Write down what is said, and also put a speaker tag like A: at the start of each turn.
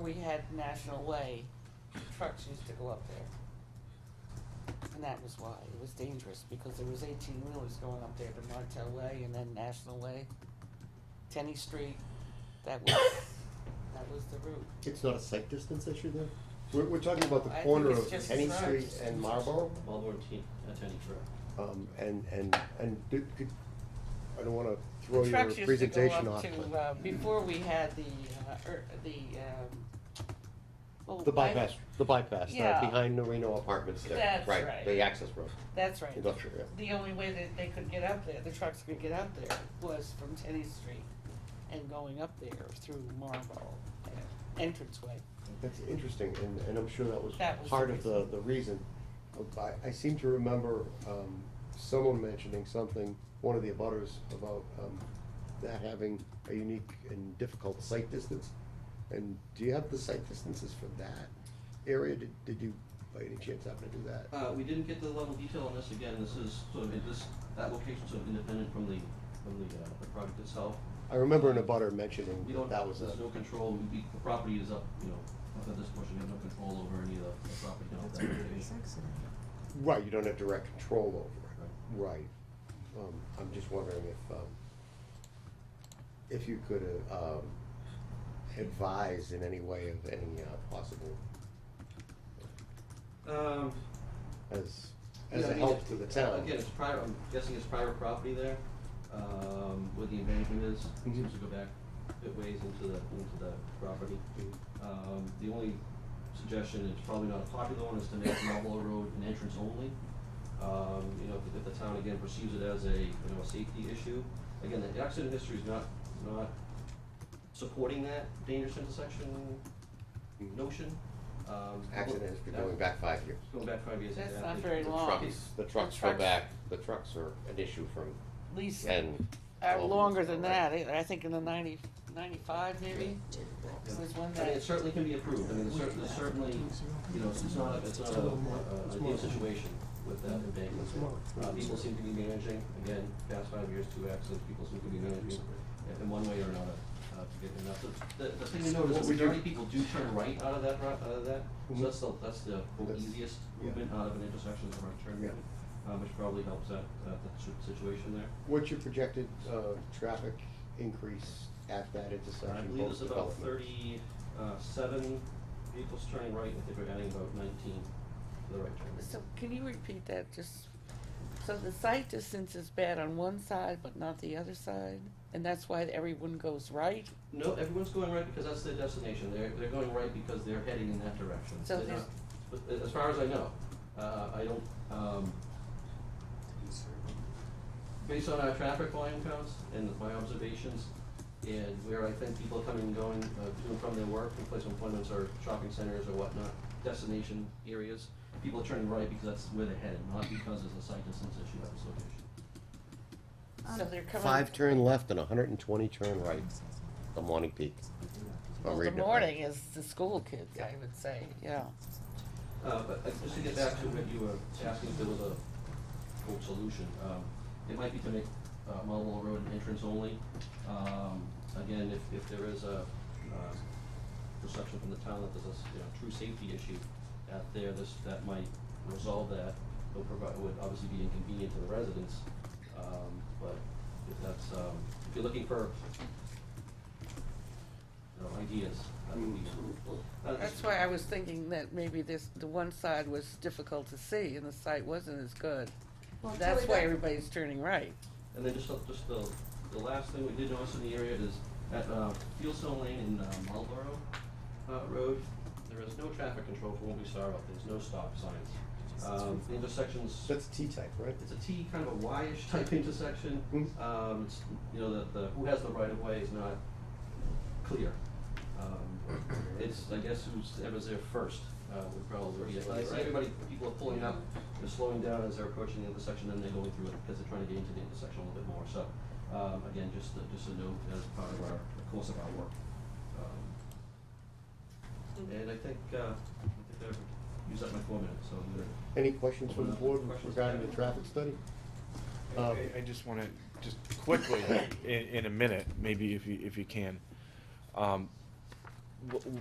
A: we had National Way, trucks used to go up there. And that was why, it was dangerous, because there was eighteen wheelers going up there to Martel Way and then National Way, Tenny Street, that was, that was the route.
B: It's not a sight distance issue then?
C: We're, we're talking about
A: I
C: the
A: think
C: corner
A: it's
C: of
A: just
C: Henny
A: trucks.
C: Street and Marlboro,
D: Marlboro and T, Attorney Trail.
C: um, and, and, and do- could, I don't wanna throw
A: The
C: your
A: trucks used to go
C: presentation
A: up
C: off,
A: to,
C: but-
A: uh, Before we had the, uh, er, the, um, well,
B: The
A: why-
B: bypass, the bypass,
A: uh, Yeah.
B: uh, behind the Reno Apartments there,
A: That's
B: right,
A: right.
B: the access road,
A: That's right.
B: industrial, yeah.
A: The only way that they could get up there, the trucks could get up there, was from Tenny Street and going up there through Marlboro uh, entranceway.
C: That's interesting, and, and I'm sure that was
A: That was the
C: part of the, the reason. I, I seem to remember, um, someone mentioning something, one of the abutters, about, um, that having a unique and difficult sight distance. And do you have the sight distances for that area? Did, did you, by any chance, happen to do that?
D: Uh, we didn't get the level of detail on this, again, this is sort of, this, that location's sort of independent from the, from the, uh, the project itself.
C: I remember an abutter mentioning
D: We don't,
C: that was a,
D: there's no control, we, we- the property is up, you know, up at this portion, we have no control over any of the the property down at that location.
C: right, you don't have direct control over
D: Right.
C: it, right. Um, I'm just wondering if, um, if you could, uh, um, advise in any way of any, uh, possible,
D: Um.
C: as,
D: yeah,
C: as
D: I
C: a
D: mean,
C: help
D: it's-
C: to the town.
D: Again, it's private, I'm guessing it's private property there, um, where the embankment is,
C: Mhm.
D: seems to go back a bit ways into the, into the property. Um, the only suggestion, it's probably not a popular one, is to make Marlboro Road an entrance only. Um, you know, if, if the town again perceives it as a, you know, a safety issue, again, the accident history is not, not supporting that dangerous intersection
C: Mm.
D: notion. Um,
C: Accident has been
D: that-
C: going back five years.
D: Going back five years.
A: That's
D: exactly.
A: not very
B: The
A: long.
B: trucks, the trucks
A: The
B: go
A: trucks-
B: back, the trucks are an issue from
A: At least,
B: ten.
A: uh,
B: 12
A: longer
B: years
A: than
B: ago,
A: that, eh,
B: right?
A: I I think in the ninety, ninety-five maybe,
D: Yeah.
A: was when
D: I mean,
A: that,
D: it certainly can be approved, I mean, it's cer- it's certainly, you know, it's not, it's not a, a, a deal situation with that embankment. Uh, people seem to be managing, again, past five years, two accidents, people seem to be managing in- in one way or another, uh, to get enough. The, the thing to note is
C: What
D: the
C: we do-
D: majority of people do turn right out of that, ro- out of that,
C: Mhm.
D: so that's the, that's the the
C: That's-
D: easiest
C: yeah.
D: movement out of an intersection, is a right turn
C: Yeah.
D: movement, uh, which probably helps that, that situ- situation there.
C: What's your projected, uh, traffic increase at that
D: I
C: intersection
D: believe there's about
C: post-development?
D: thirty-seven vehicles turning right, I think we're adding about nineteen to the right turn.
A: so can you repeat that just? So the sight distance is bad on one side, but not the other side, and that's why everyone goes right?
D: No, everyone's going right because that's their destination, they're, they're going right because they're heading in that direction.
A: So
D: They're
A: there's-
D: not- but As far as I know, uh, I don't, um, based on our traffic volume counts and my observations, and where I think people are coming and going, uh, to and from their work, and place of appointments or shopping centers or whatnot, destination areas, people are turning right because that's where they're headed, not because there's a sight distance issue at this location.
A: So they're coming.
B: Five turn left and hundred and twenty turn right, the morning peak. if I'm
A: Well, the
B: reading it right.
A: morning is the school kids, I would say, yeah.
D: Uh, but uh, just to get back to what you were asking, if there was a quote solution, um, it might be to make, uh, Marlboro Road an entrance only. Um, again, if, if there is a, uh, perception from the town that there's a, s- you know, true safety issue out there, this, that might resolve that. It would provide, would obviously be inconvenient to the residents, um, but if that's, um, if you're looking for, you know, ideas, that would be. uh,
A: That's why I was thinking that maybe this, the one side was difficult to see and the sight wasn't as good.
E: Well,
A: That's
E: Tilly,
A: why
E: that-
A: everybody's turning right.
D: And then just, the- just the, the last thing we did notice in the area is at, uh, Fieldstone Lane in, uh, Marlboro, uh, Road, there is no traffic control from what we saw out there, there's no stop signs. Um, the intersections,
C: That's T-type, right?
D: it's a T, kind of a Y-ish type intersection,
C: Mhm.
D: um, it's, you know, the, the, who has the right of way is not clear. Um, it's, I guess, who's, whoever's there first, uh, would probably be it, but I see everybody, people are pulling up, they're slowing down as they're approaching the intersection, and they're going through it, because they're trying to get into the intersection a little bit more, so, um, again, just, a- just a note as part of our, the course of our work. Um, And I think, uh, I think I've used up my four minutes, so I'm gonna
C: Any questions from the board
D: Questions?
C: regarding the traffic study?
F: I
C: Um,
F: I just want to, just quickly, in, in a minute, maybe if you, if you can. um, wh-